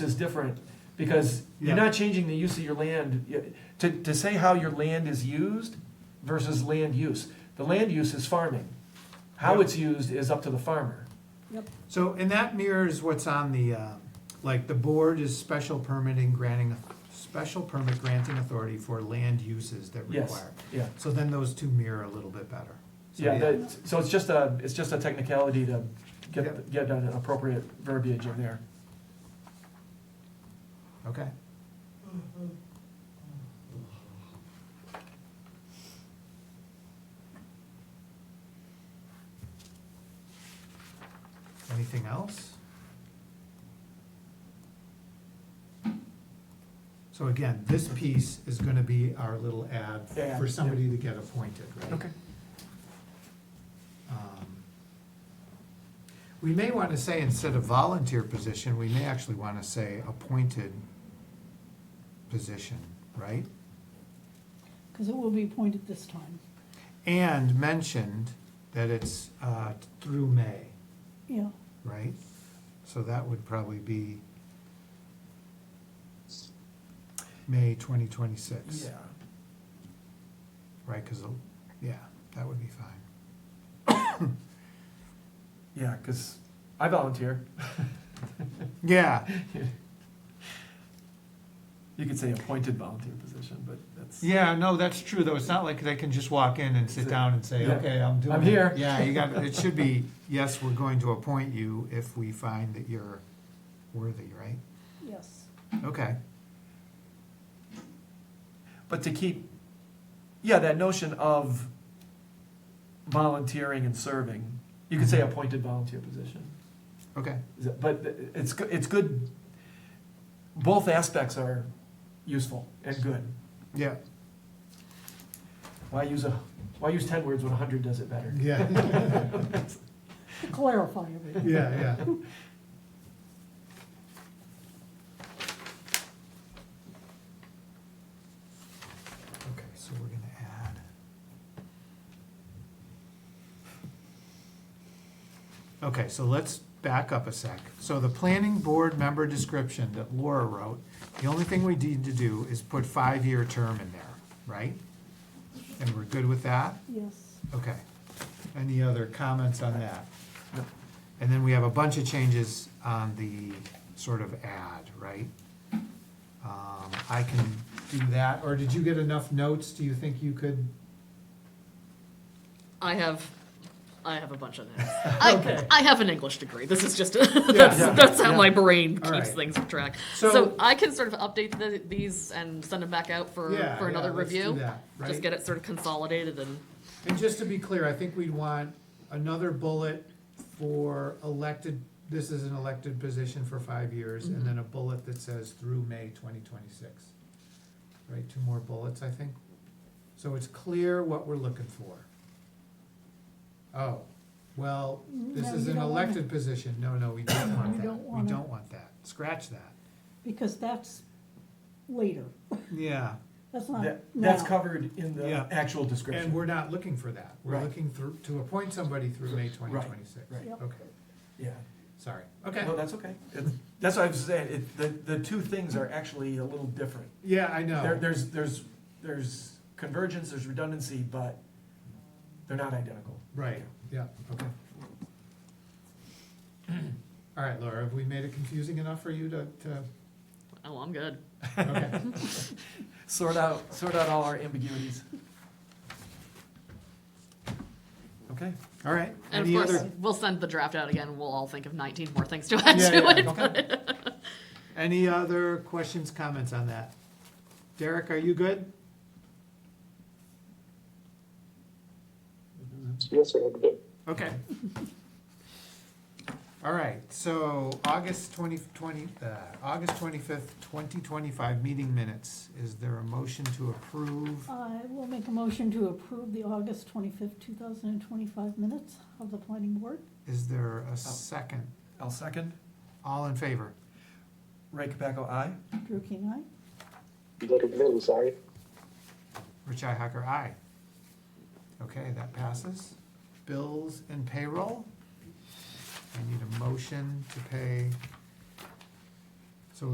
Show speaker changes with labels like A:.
A: is different, because you're
B: Yeah.
A: not changing the use of your land. You- To, to say how your land is used versus land use, the land use is farming. How
B: Yeah.
A: it's used is up to the farmer.
B: So, and that mirrors what's on the, uh, like, the board is special permitting granting, special permit granting authority for land uses that
A: Yes,
B: require.
A: yeah,
B: So then those two mirror a little bit better. So,
A: yeah, that, so it's just a, it's just a technicality to
B: Yeah.
A: get, get an appropriate verbiage in there.
B: Okay. Anything else? So again, this piece is gonna be our little ad
A: Yeah,
B: for
A: yeah.
B: somebody to get appointed, right? Um, We may want to say instead of volunteer position, we may actually want to say appointed position, right?
C: Because it will be appointed this time.
B: And mentioned that it's uh, through May,
C: Yeah,
B: right? So that would probably be May 2026, right? Because, yeah, that would be fine.
A: Yeah, because I volunteer.
B: Yeah,
A: You could say appointed volunteer position, but that's.
B: Yeah, no, that's true, though. It's not like they can just walk in and sit down and say,
A: Yeah.
B: okay, I'm doing.
A: I'm
B: it."
A: here.
B: Yeah, you got, it should be, yes, we're going to appoint you if we find that you're worthy, right?
C: yes.
B: Okay,
A: But to keep, yeah, that notion of volunteering and serving, you could say
B: Mm-hmm.
A: appointed volunteer position.
B: okay,
A: Is it- But it's, go- it's good, both aspects are useful and good.
B: yeah.
A: Why use a, why use ten words when a hundred does it better?
B: Yeah,
C: To clarify everything.
B: yeah, yeah. Okay, so we're gonna add. Okay, so let's back up a sec. So the planning board member description that Laura wrote, the only thing we need to do is put five-year term in there, right? And we're good with that?
C: Yes,
B: Okay. Any other comments on that? And then we have a bunch of changes on the sort of ad, right? Um, I can do that, or did you get enough notes? Do you think you could?
D: I have, I have a bunch of things. I, I have an English degree. This is just, that's,
B: yeah,
D: that's how
A: yeah.
D: my brain keeps
B: All right.
D: things on track.
B: So-
D: So, I can sort of update the, these and send them back out for,
B: Yeah,
D: for another
B: yeah, let's do
D: review.
B: that, right?
D: Just get it sort of consolidated and
B: And just to be clear, I think we'd want another bullet for elected, this is an elected position for five years,
C: Mm-hmm.
B: and then a bullet that says through May twenty twenty-six. Right, two more bullets, I think. So it's clear what we're looking for. Oh, well, this
C: Mm-hmm. No,
B: is
C: you
B: an
C: don't wanna-
B: elected position. No, no, we don't
C: We
B: want
C: don't
B: that. We
C: wanna-
B: don't want that. Scratch that.
C: because that's later.
B: Yeah.
C: That's not
A: That, that's
C: now.
A: covered in the
B: Yeah.
A: actual description.
B: And we're not looking for that. We're
A: Right.
B: looking through, to appoint somebody through May twenty twenty-six.
A: right.
C: Yep.
B: Okay,
A: Yeah.
B: sorry. Okay.
A: No, that's okay. It- That's what I was saying, it, the, the two things are actually a little different.
B: Yeah, I know.
A: There, there's, there's, there's convergence, there's redundancy, but they're not identical.
B: Right, yeah, okay. All right, Laura, have we made it confusing enough for you to, to,
D: oh, I'm good.
B: okay,
A: Sort out, sort out all our ambiguities. Okay,
B: all right.
D: And
B: Any
D: of course,
B: other-
D: we'll send the draft out again. We'll all think of 19 more things to add
B: Yeah,
D: to
B: yeah,
D: it.
B: okay. Any other questions, comments on that? Derek, are you good?
E: Yes, sir. I'm good.
B: Okay. All right, so August twenty, twenty, uh, August twenty-fifth, twenty twenty-five meeting minutes. Is there a motion to approve?
C: I will make a motion to approve the August twenty-fifth, two thousand and twenty-five minutes of the planning board.
B: Is there a second?
A: I'll second.
B: All in favor?
A: Ray Capaco, aye.
C: Drew King, aye.
E: Derek Bell, sorry.
B: Richi Hacker, aye. Okay, that passes. Bills and payroll. I need a motion to pay